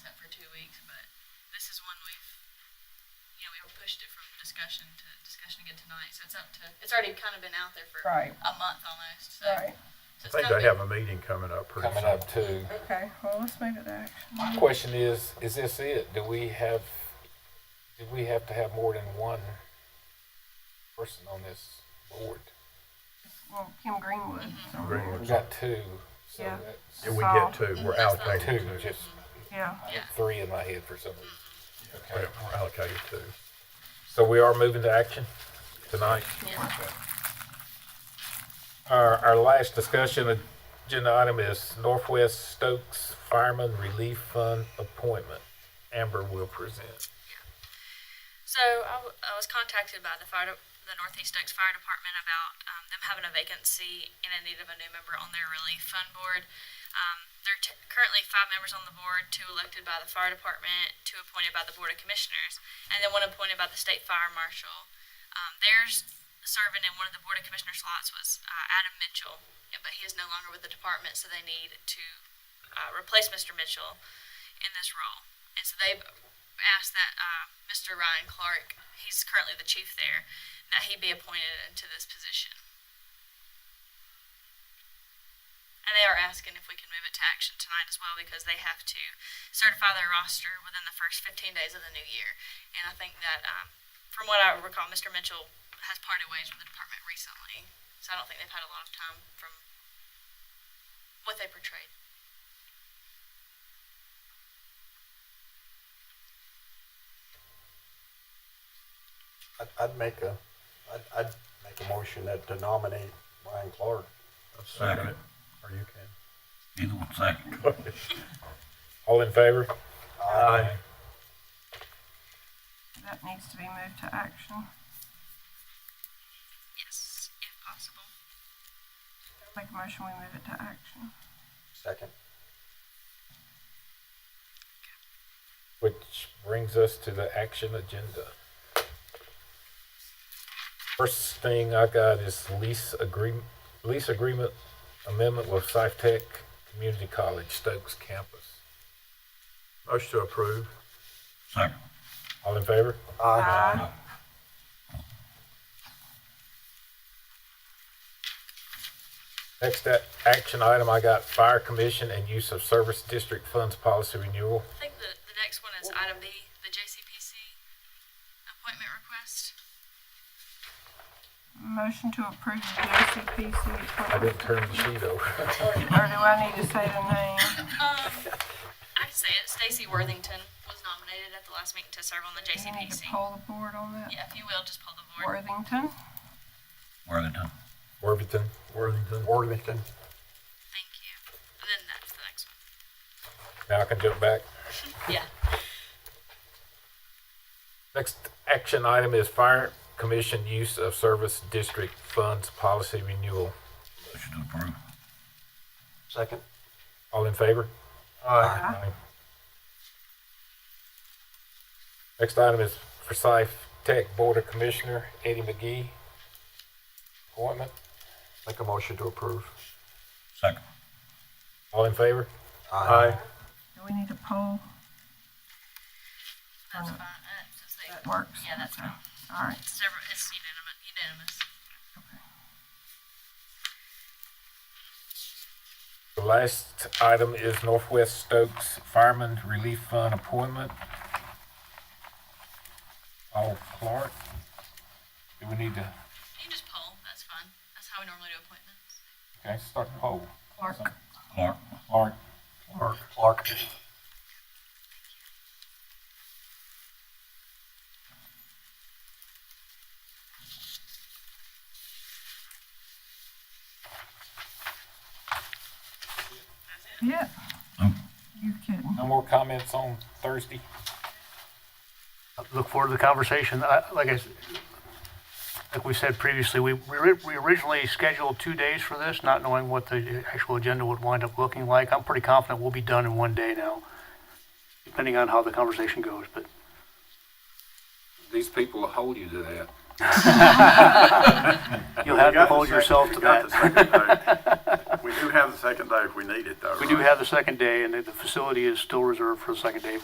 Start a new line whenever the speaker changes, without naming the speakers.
pushed it from discussion to discussion again tonight, so it's up to, it's already kind of been out there for
Right,
a month almost, so.
right.
so
I
it's
think
not
they
been-
have a meeting coming up pretty
coming
soon.
up too.
Okay, well, let's move it to action.
My question is, is this it? Do we have, do we have to have more than one person on this board?
Well, Kim Greenwood. so-
We
Greenwood's-
got two, so
Yeah.
that's
If we get two, we're
That's not-
allocated
two,
two.
just
Yeah,
I
Yeah.
had three in my head for some reason.
We're we're allocated two.
So we are moving to action tonight.
Yeah.
Our, our last discussion agenda item is Northwest Stokes Fireman Relief Fund appointment. Amber will present.
So I, w- I was contacted by the fire, de- the Northeast Oaks Fire Department about um, them having a vacancy and in need of a new member on their relief fund board. Um, there are t- currently five members on the board, two elected by the fire department, two appointed by the board of commissioners, and then one appointed by the state fire marshal. Um, theirs serving in one of the board of commissioner slots was uh, Adam Mitchell, but he is no longer with the department, so they need to uh, replace Mr. Mitchell in this role. And so they've asked that uh, Mr. Ryan Clark, he's currently the chief there, that he be appointed into this position. And they are asking if we can move it to action tonight as well because they have to certify their roster within the first 15 days of the new year. And I think that, um, from what I recall, Mr. Mitchell has parted ways with the department recently. So I don't think they've had a lot of time from what they portrayed.
I'd, I'd make a, I'd, I'd make a motion that to nominate Brian Clark.
I'll Second it,
Second.
or you can.
Either one second.
All in favor?
Aye.
that needs to be moved to action.
Yes, if possible.
Make a motion, we move it to action.
Second.
Which brings us to the action agenda. First thing I got is lease agreement, lease agreement amendment with SciTech Community College Stokes campus.
Motion to approve.
Second.
All in favor?
Aye.
Next a- action item, I got fire commission and use of service district funds policy renewal.
I think the, the next one is item B, the JCPC appointment request.
Motion to approve the JCPC
I
appointment.
didn't turn the sheet over.
Or do I need to say the name?
Um, I can say it, Stacy Worthington was nominated at the last meeting to serve on the
Do you need to
JCPC.
poll the board on that?
Yeah, if you will, just pull the board.
Worthington?
Worthington.
Worthington,
Worthington.
Worthington.
Thank you. And then that's the next one.
now I can jump back.
Yeah.
Next action item is fire commission use of service district funds policy renewal.
Motion to approve.
Second.
All in favor?
Aye.
Aye. Next item is Forsyth Tech Board of Commissioner Eddie McGee. Appointment,
Make a motion to approve.
Second.
all in favor?
Do we need to poll?
That's
Or not?
fine. Uh, just like-
That works?
Yeah, that's
Okay.
fine.
All right.
It's several, it's unanimous, unanimous.
The last item is Northwest Stokes Fireman Relief Fund appointment. Paul Clark. Do we need to,
You can just poll, that's fine. That's how we normally do appointments.
okay, start the poll.
Clark,
Clark.
Clark,
Clark. Clark.
yeah.
Oh.
You kidding?
no more comments on Thursday?
look forward to the conversation. I, like I, s- like we said previously, we, we ri- we originally scheduled two days for this, not knowing what the actual agenda would wind up looking like. I'm pretty confident we'll be done in one day now, depending on how the conversation goes, but
These people will hold you to that.
you'll have to hold yourself to that.
We do have the second day if we need it, though,
We do have the second day, and the the facility is still reserved for the second day